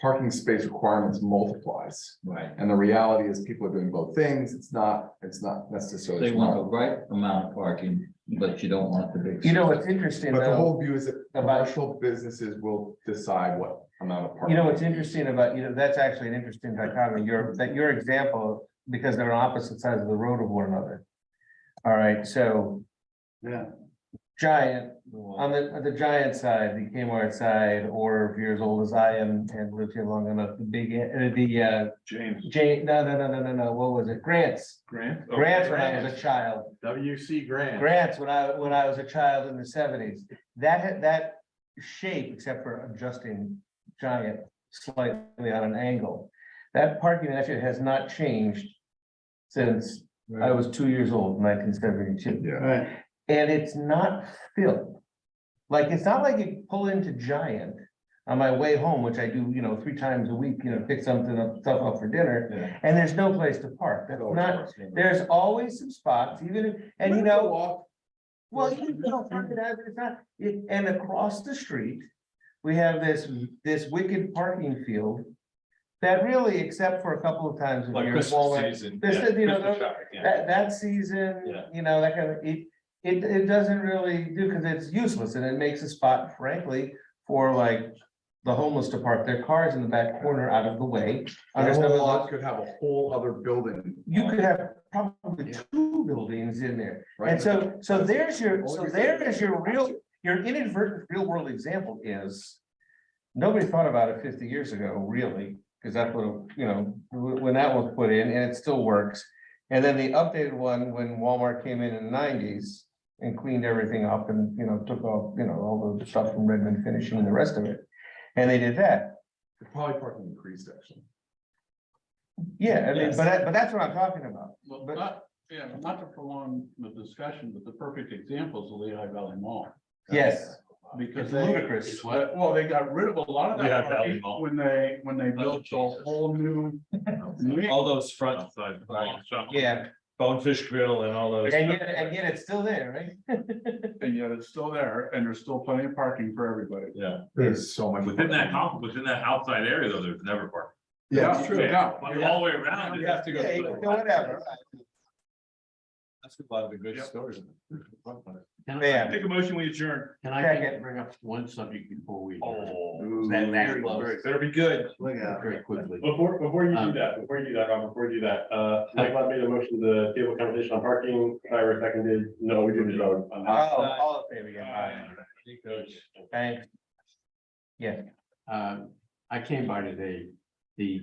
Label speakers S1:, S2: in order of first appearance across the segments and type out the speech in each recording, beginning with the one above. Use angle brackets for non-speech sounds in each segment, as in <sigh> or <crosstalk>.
S1: parking space requirements multiplies.
S2: Right.
S1: And the reality is people are doing both things. It's not, it's not necessarily.
S2: They want the right amount of parking, but you don't want the big.
S3: You know, it's interesting
S1: But the
S3: though.
S1: whole view is that
S3: About-
S1: commercial businesses will decide what amount of
S3: You
S1: parking.
S3: know, what's interesting about, you know, that's actually an interesting dichotomy, your, that your example, because they're on opposite sides of the road of one another. All right, so.
S1: Yeah.
S3: Giant, on the, on the giant side, the Kmart side, or if you're as old as I am and lived here long enough, the big, uh, the, uh,
S4: James
S3: Jane, no, no, no, no, no, no, what was it? Grants,
S4: Grant. oh,
S3: grants when I was a child.
S4: WC Grant.
S3: grants when I, when I was a child in the seventies. That, had- that shape, except for adjusting giant slightly on an angle. That parking actually has not changed since I was two years old, nineteen seventy-two.
S1: Yeah,
S4: Right.
S3: And it's not filled. Like, it's not like you pull into Giant on my way home, which I do, you know, three times a week, you know, pick something up, stuff up for dinner.
S2: Yeah.
S3: And there's no place to park. That's not, there's always some spots, even, if and you know. Well, you can go park it out, it's not, it- and across the street, we have this, this wicked parking field. That really, except for a couple of times. of
S4: Like
S3: years, Walmart,
S4: Christmas season.
S3: This
S4: yeah,
S3: is, you know,
S4: Christmas
S3: the-
S4: shopping, yeah.
S3: That, that season,
S4: Yeah.
S3: you know, that kind of, it, it, it doesn't really do, because it's useless and it makes a spot frankly for like. The homeless to park their cars in the back corner out of the way.
S1: And
S3: Under
S1: a
S3: some of
S1: whole
S3: the-
S1: lot could have a whole other building,
S3: You could have probably two buildings in there.
S1: right?
S3: And so, so there's your, so
S1: Only reason-
S3: there is your real, your inadvertent real world example is. Nobody thought about it fifty years ago, really, because that's what, you know, wh- when that was put in and it still works. And then the updated one, when Walmart came in in the nineties and cleaned everything up and, you know, took off, you know, all the stuff from Redmond finishing and the rest of it. And they did that,
S1: Probably parking increased actually.
S3: yeah, I mean,
S4: Yes.
S3: but that, but that's what I'm talking about.
S5: Well,
S3: But-
S5: not, yeah, not to prolong the discussion, but the perfect example is the Lehigh Valley Mall.
S3: Yes,
S5: Because
S3: It's
S5: they.
S3: ludicrous.
S5: it's what- Well, they got rid of a lot of
S4: Lehigh
S5: that
S4: Valley
S5: parking
S4: Mall.
S5: when they, when they built a
S4: Jesus.
S5: whole new. mix.
S6: All those front
S4: Outside.
S6: Right.
S3: yeah,
S6: bonefish grill and all those.
S3: and yet, and yet it's still there, right?
S5: And yet it's still there and there's still plenty of parking for everybody.
S1: There's so much.
S7: Within that, comp- within that outside area though, there's never parking.
S1: Yeah,
S5: true. Yeah.
S7: All the way around.
S6: You
S7: it's-
S6: have to go.
S3: Yeah, you
S6: through
S3: can
S6: it.
S3: do whatever,
S6: That's a lot of the great
S5: Yep.
S6: stories.
S8: Can I-
S3: yeah.
S6: Take a motion, we adjourn.
S8: can I
S3: Second.
S8: bring up one subject before we? adjourn?
S6: Oh,
S1: Ooh.
S6: that, that's close. Better be good.
S1: Look at
S8: Very quickly.
S9: Before, before you do
S8: Um,
S9: that, before you do that, Rob, before you do that, uh, Mike Lott made a motion to table conversation on parking, Tyra seconded, no, we didn't vote.
S3: Oh, all in favor, yeah.
S6: Aye. Coach.
S3: Thanks.
S8: Um, I came by today, the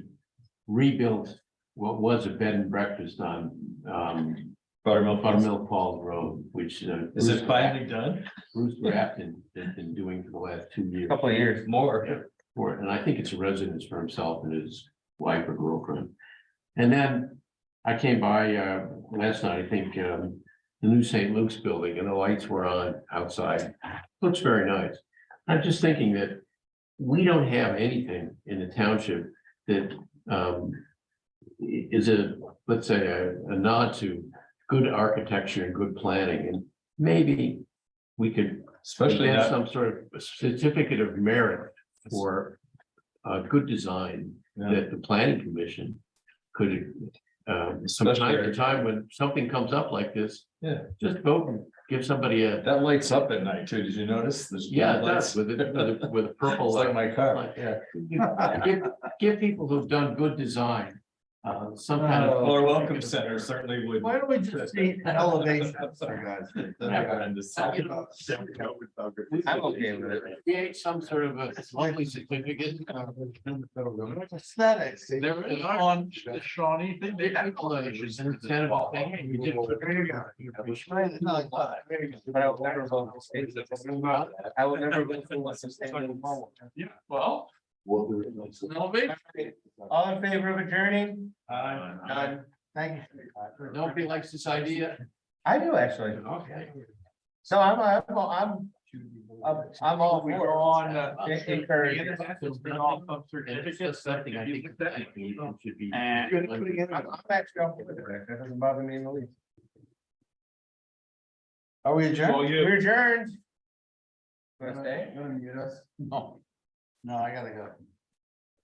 S8: rebuilt, what was a bed and breakfast on, um,
S6: Buttermilk.
S8: Buttermilk Falls Road, which. uh,
S6: Is
S8: Bruce-
S6: it finally done?
S8: Bruce Grafton has been doing for the last two years
S3: Couple of years.
S6: More.
S8: for it, and I think it's a residence for himself and his wife or girlfriend. And then I came by uh last night, I think, um, the new St. Luke's building and the lights were on outside. Looks very nice. I'm just thinking that we don't have anything in the township that um i- is a, let's say, a a nod to good architecture and good planning, and maybe we could
S6: Especially
S8: have
S6: that.
S8: Some sort of certificate of merit for uh good design
S6: yeah.
S8: that the planning commission could. Um, from
S6: Especially-
S8: time to time when something comes up like this.
S6: Yeah.
S8: Just vote and give somebody a,
S6: That lights up at night too. Did you notice? There's
S8: yeah, it
S6: lights.
S8: does with a, with a, with
S6: <laughs>
S8: a
S6: It's
S8: purple.
S6: like my car.
S8: light, yeah. Give, give people who've done good design, uh, some kind of.
S6: Or welcome center certainly would.
S1: Why don't we just see elevation?
S8: You know,
S3: I'm okay with it.
S8: Create some sort of a lovely
S6: <laughs>
S8: certificate.
S3: Aesthetics.
S8: There is.
S4: On Shawnee thing.
S8: They have collages and it's kind of a thing, and you did-
S3: But I will never vote for state. I will never vote for what's substantial.
S4: Yeah, well.
S3: All in favor of adjourning?
S6: Aye.
S3: None. Thank you.
S8: Nobody likes this idea.
S3: I do actually.
S8: Okay.
S3: So I'm, I'm, I'm, I'm, I'm all for
S8: On. uh,
S3: it. En- encourage it.
S8: And it's just something I think I think it should be.
S3: I'm I'm actually all for it. That doesn't bother me in the least.
S1: Are we
S6: Well,
S1: adjourned?
S6: you.
S3: We're adjourned. Want to stay?
S1: You're gonna mute us?
S4: No, I gotta go.